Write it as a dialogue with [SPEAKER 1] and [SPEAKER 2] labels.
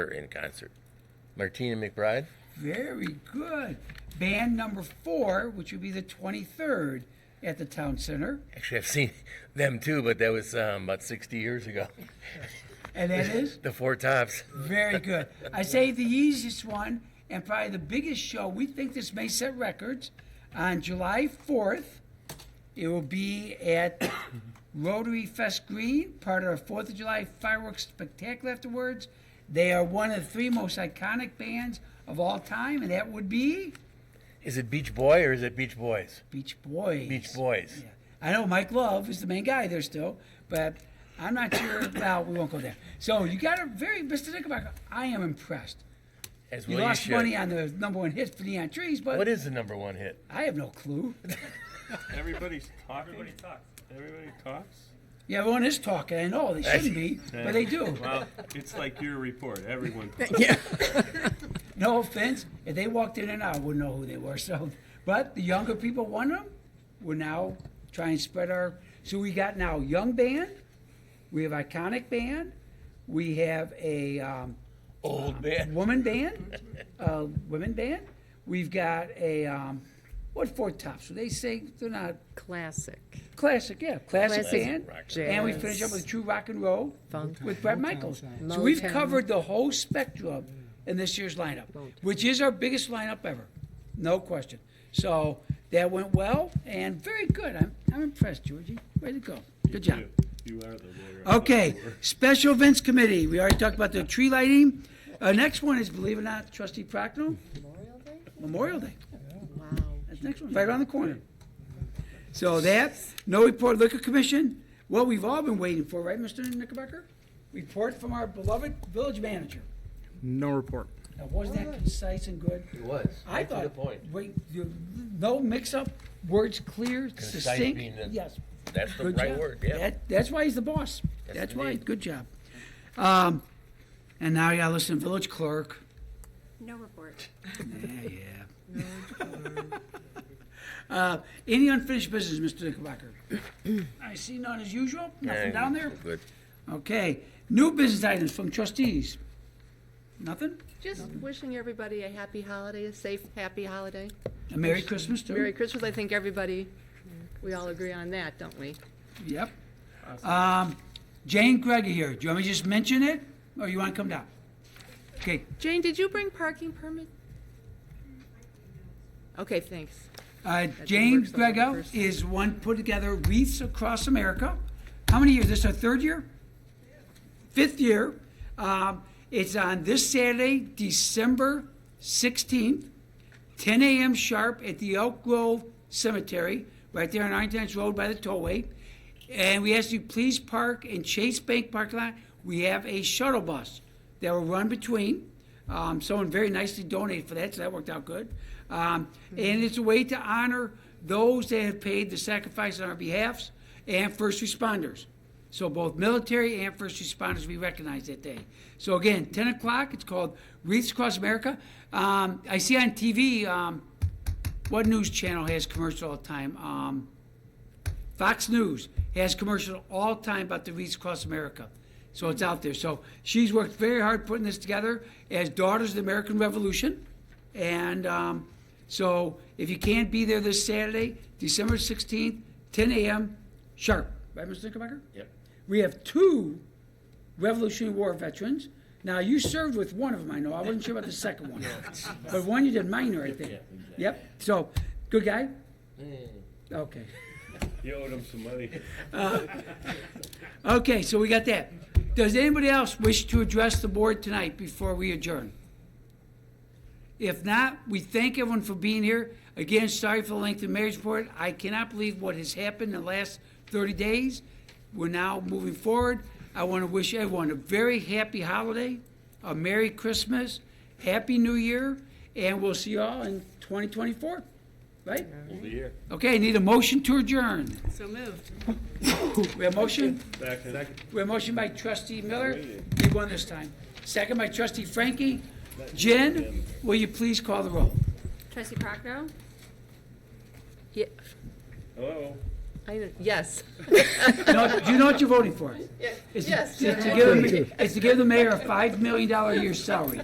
[SPEAKER 1] in concert. Martina McBride.
[SPEAKER 2] Very good. Band number four, which would be the 23rd at the Town Center.
[SPEAKER 1] Actually, I've seen them too, but that was um, about 60 years ago.
[SPEAKER 2] And that is?
[SPEAKER 1] The Four Tops.
[SPEAKER 2] Very good. I say the easiest one and probably the biggest show. We think this may set records. On July 4th, it will be at Rotary Fest Green, part of our 4th of July fireworks spectacular afterwards. They are one of the three most iconic bands of all time, and that would be
[SPEAKER 1] Is it Beach Boy or is it Beach Boys?
[SPEAKER 2] Beach Boys.
[SPEAKER 1] Beach Boys.
[SPEAKER 2] I know Mike Love is the main guy there still, but I'm not sure. well, we won't go there. So you got a very, Mr. Knickerbocker, I am impressed.
[SPEAKER 1] As
[SPEAKER 2] You
[SPEAKER 1] well
[SPEAKER 2] lost
[SPEAKER 1] should.
[SPEAKER 2] money on the number one hit for Neon Trees, but
[SPEAKER 1] What is the number one hit?
[SPEAKER 2] I have no clue.
[SPEAKER 3] Everybody's talking. Everybody talks. Everybody talks.
[SPEAKER 2] Yeah, everyone is talking. I know they shouldn't be, but they do.
[SPEAKER 3] Well, it's like your report. Everyone talks.
[SPEAKER 2] No offense, if they walked in and out, I wouldn't know who they were. So, but the younger people won them. We're now trying to spread our. So we got now young band, we have iconic band, we have a um,
[SPEAKER 1] Old man.
[SPEAKER 2] woman band, uh, women band. We've got a um, what four tops? They say they're not
[SPEAKER 4] Classic.
[SPEAKER 2] classic, yeah, classic,
[SPEAKER 4] Classic
[SPEAKER 2] band.
[SPEAKER 1] rock and
[SPEAKER 2] And we
[SPEAKER 4] jazz,
[SPEAKER 2] finish up with true rock and roll
[SPEAKER 4] Funk.
[SPEAKER 2] with Brett Michaels.
[SPEAKER 4] sound.
[SPEAKER 2] So we've
[SPEAKER 4] Motown.
[SPEAKER 2] covered the whole spectrum in this year's lineup, which is our biggest lineup ever, no question. So that went well and very good. I'm, I'm impressed, Georgie. Way to go. Good job.
[SPEAKER 3] You you are the lawyer.
[SPEAKER 2] Okay, special events committee. We already talked about the tree lighting. Uh, next one is, believe it or not, trustee Prochnow,
[SPEAKER 4] Memorial Day?
[SPEAKER 2] Memorial Day.
[SPEAKER 4] Wow.
[SPEAKER 2] That's next one, right around the corner. So that, no report liquor commission, what we've all been waiting for, right, Mr. Knickerbocker? Report from our beloved village manager.
[SPEAKER 5] No report.
[SPEAKER 2] Now, wasn't that concise and good?
[SPEAKER 1] It was.
[SPEAKER 2] I
[SPEAKER 1] Right to
[SPEAKER 2] thought.
[SPEAKER 1] the point.
[SPEAKER 2] Wait, you- no mix-up, words clear,
[SPEAKER 1] Concise being
[SPEAKER 2] succinct,
[SPEAKER 1] the-
[SPEAKER 2] yes.
[SPEAKER 1] That's the
[SPEAKER 2] Good
[SPEAKER 1] right
[SPEAKER 2] job.
[SPEAKER 1] word, yeah.
[SPEAKER 2] That- That's why he's the boss.
[SPEAKER 1] Yes,
[SPEAKER 2] That's why,
[SPEAKER 1] indeed.
[SPEAKER 2] good job. Um, and now you gotta listen, village clerk.
[SPEAKER 6] No report.
[SPEAKER 2] Yeah, yeah. Uh, Any unfinished business, Mr. Knickerbocker? I see none as usual, nothing
[SPEAKER 1] And
[SPEAKER 2] down there?
[SPEAKER 1] Good.
[SPEAKER 2] Okay, new business items from trustees? Nothing?
[SPEAKER 4] Just wishing everybody a happy holiday, a safe, happy holiday.
[SPEAKER 2] A Merry Christmas too?
[SPEAKER 4] Merry Christmas, I think everybody, we all agree on that, don't we?
[SPEAKER 2] Yep. Um, Jane Gregor here, do you want me to just mention it, or you want to come down? Okay,
[SPEAKER 4] Jane, did you bring parking permit? Okay, thanks.
[SPEAKER 2] uh, Jane
[SPEAKER 4] works on the
[SPEAKER 2] Grego
[SPEAKER 4] first-
[SPEAKER 2] is one put together wreaths across America. How many years, this is our third year? fifth year. Um, it's on this Saturday, December 16th, 10 a.m. sharp at the Elk Grove Cemetery, right there on Arlington Road by the tollway. And we ask you please park in Chase Bank parking lot. We have a shuttle bus that will run between. Um, someone very nicely donated for that, so that worked out good. Um, And it's a way to honor those that have paid the sacrifice on our behalfs and first responders. So both military and first responders will be recognized that day. So again, 10 o'clock, it's called Wreaths Across America. Um, I see on TV, um, what news channel has commercial all the time? Um, Fox News has commercial all the time about the Wreaths Across America. So it's out there. So she's worked very hard putting this together as Daughters of the American Revolution. And um, so if you can't be there this Saturday, December 16th, 10 a.m. sharp. Right, Mr. Knickerbocker?
[SPEAKER 1] Yep.
[SPEAKER 2] We have two Revolutionary War veterans. Now, you served with one of them, I know. I wasn't sure about the second one. But one you did minor, I think. Yep. So, good guy? Okay.
[SPEAKER 3] You owed him some money.
[SPEAKER 2] Okay, so we got that. Does anybody else wish to address the board tonight before we adjourn? If not, we thank everyone for being here. Again, sorry for the length of marriage report. I cannot believe what has happened in the last 30 days. We're now moving forward. I want to wish everyone a very happy holiday, a Merry Christmas, Happy New Year, and we'll see you all in 2024, right?
[SPEAKER 3] We'll be here.
[SPEAKER 2] Okay, need a motion to adjourn.
[SPEAKER 4] So moved.
[SPEAKER 2] We have a motion?
[SPEAKER 3] Second.
[SPEAKER 2] We have a motion by trustee Miller. We won this time. Second by trustee Frankie. Jen, will you please call the roll?
[SPEAKER 6] Trustee Prochnow?
[SPEAKER 4] Yeah,
[SPEAKER 3] Hello.
[SPEAKER 4] I know, yes.
[SPEAKER 2] No, do you know what you're voting for? It's to-
[SPEAKER 4] Yes.
[SPEAKER 2] It's to give, the- it's to give the mayor a $5 million a year salary.